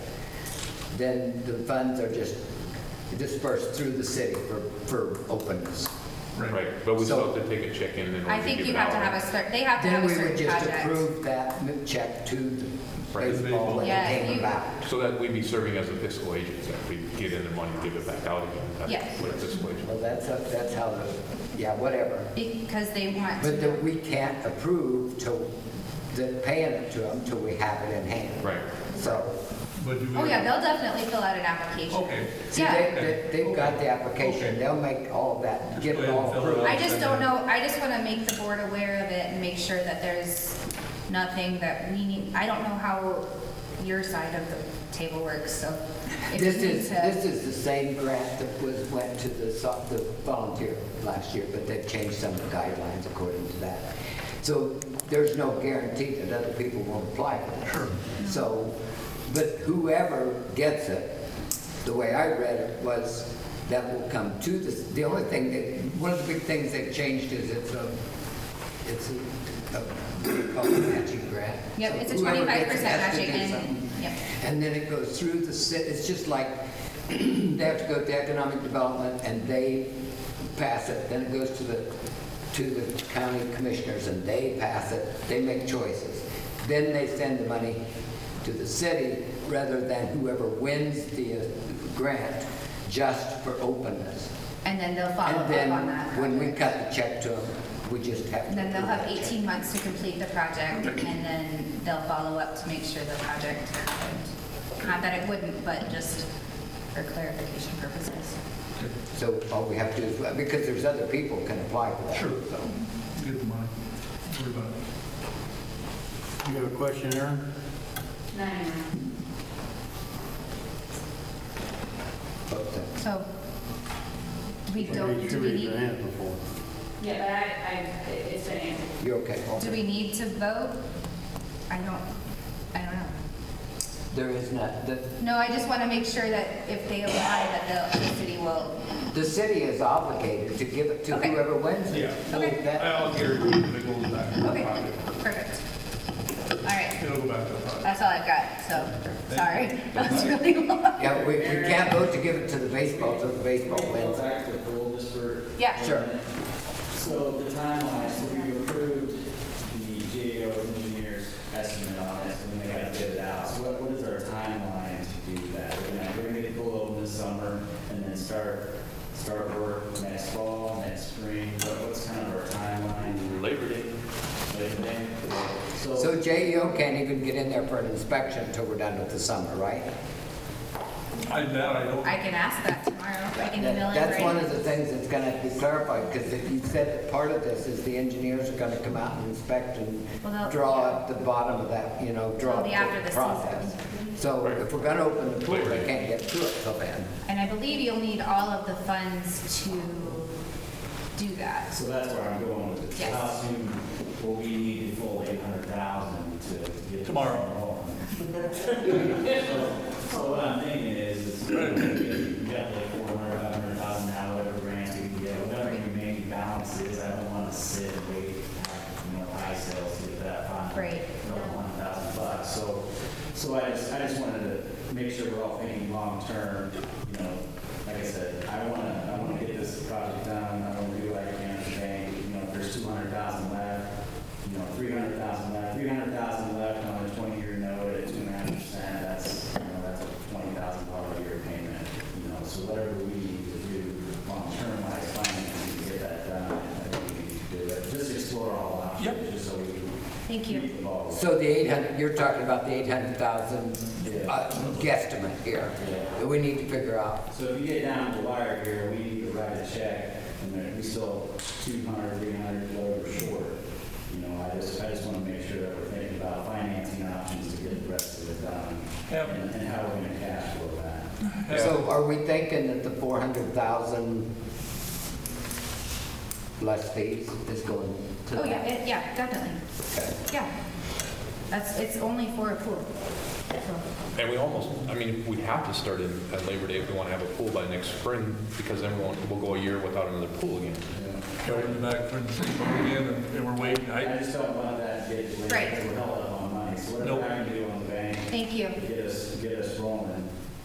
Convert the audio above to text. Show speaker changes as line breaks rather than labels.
then the funds are just dispersed through the city for, for openness.
Right,
Right, but we
So-
still have to take a check in in order to give it out.
I think you have to have a certain, they have to
Then
have a
we would
certain
just
project.
approve that m- check to the
Right.
baseball when
Yeah,
it came
you-
about.
So that we'd be serving as a fiscal agent, that we get in the money, give it back out again.
Yes.
That's what a fiscal agent.
Well, that's, up- that's how the, yeah, whatever.
Because they want
But
to,
that we can't approve till, the paying it to them till we have it in hand.
Right.
So,
but do we?
oh yeah, they'll definitely fill out an application.
Okay.
see,
Yeah,
they, they- they've got the application, they'll make all that, get
Go
it
ahead and
all
fill it
approved.
out.
I just don't know, I just want to make the board aware of it and make sure that there's nothing that we need, I don't know how your side of the table works, so. if you
This
need
is,
to-
this is the same grant that was, went to the, so- the volunteer last year, but they've changed some of the guidelines according to that. So there's no guarantee that other people won't apply for that. So, but whoever gets it, the way I read it was that will come to this, the only thing that, one of the big things they've changed is it's a, it's a, a, what do you call it, matching grant.
Yep,
So
it's
whoever gets
a
it
twenty-five percent
has to
matching
do something.
and, yep.
And then it goes through the, ci- it's just like, they have to go to economic development and they pass it, then it goes to the, to the county commissioners and they pass it, they make choices. Then they send the money to the city rather than whoever wins the uh, grant just for openness.
And then they'll follow up
And then
on that.
when we cut the check to them, we just have to.
And Then they'll have
approve that check.
18 months to complete the project, and then they'll follow up to make sure the project happened. Not that it wouldn't, but just for clarification purposes.
So all we have to do is, because there's other people can apply for that.
Sure.
so.
Get the money. Don't worry about it.
You have a question, Aaron?
But, uh,
So, we don't,
You
do
should
we
raise your
need,
hand before.
Yeah, but I, I, it- it's been answered.
You're okay.
do we need to vote? I don't, I don't know.
There is not, the,
No, I just want to make sure that if they apply, that the the city will,
the city is obligated to give it to
Okay.
whoever wins it.
Yeah.
Okay.
That-
I'll guarantee it goes back to the
okay,
pocket.
perfect. All right,
It'll go back to the pocket.
that's all I've got, so, sorry. That was really long.
Yeah, we, we can't vote to give it to the baseball, so the baseball
Go
wins.
back to the rule, Mr.
Yeah.
Sure.
So the timeline, so we approved the GAO engineer's estimate on it, and they got to bid it out. So what, what is our timeline to do that? We're gonna, we're gonna get the open this summer, and then start, start work next fall, next spring, what, what's kind of our timeline?
Labor Day.
Labor Day?
So JEO can't even get in there for an inspection until we're done with the summer, right?
I doubt I don't.
I can ask that tomorrow. I can
That-
email it.
That's one of the things that's gonna be clarified, because if you said that part of this is the engineers are gonna come out and inspect and
Well, they'll-
draw up the bottom of that, you know, draw
It'll
up
be after
the
the season.
process. So
Right.
if we're gonna open the pool,
Labor
they
Day.
can't get to it till then.
And I believe you'll need all of the funds to do that.
So that's where I'm going with it.
Yes.
How soon will we need the full eight hundred thousand to get? this
Tomorrow.
going? So so what I'm thinking is, is we got like four hundred, five hundred thousand, however grants we can get, whatever your remaining balance is, I don't wanna sit and wait, you know, high sales to get that final.
Right.
One thousand bucks, so, so I just, I just wanted to make sure we're all thinking long-term, you know, like I said, I wanna, I wanna get this project done, I wanna do what I can for the bank, you know, if there's two hundred thousand left, you know, three hundred thousand left, three hundred thousand left on a twenty-year note at two and a half percent, that's, you know, that's a twenty thousand dollar a year payment, you know, so whatever we need to do long-term wise financing to get that done, I think we need to do it, just explore all options, just so we can.
Thank you.
keep the ball rolling.
So the 800, you're talking about the 800,000
Yeah.
uh, guesstimate here
Yeah.
that we need to figure out.
So if you get down to the wire here, we need to write a check, and then we still 200, 300, whatever short. You know, I just, I just want to make sure that we're thinking about financing options to get the rest of it done,
Yep.
and and how we're going to cash flow that.
So are we thinking that the 400,000 less fees is going to?
Oh, yeah, it- yeah, definitely.
Okay.
Yeah. That's, it's only for a pool.
And we almost, I mean, we have to start in at Labor Day if we want to have a pool by next spring, because then we won't, we'll go a year without another pool again.
Mm-hmm. Going back for the season again, and- and we're waiting.
I
I,
just don't want that to get,
Right.
we're held up on money, so
Nope.
whatever I can do on the bank,
Thank you.
get us, get us rolling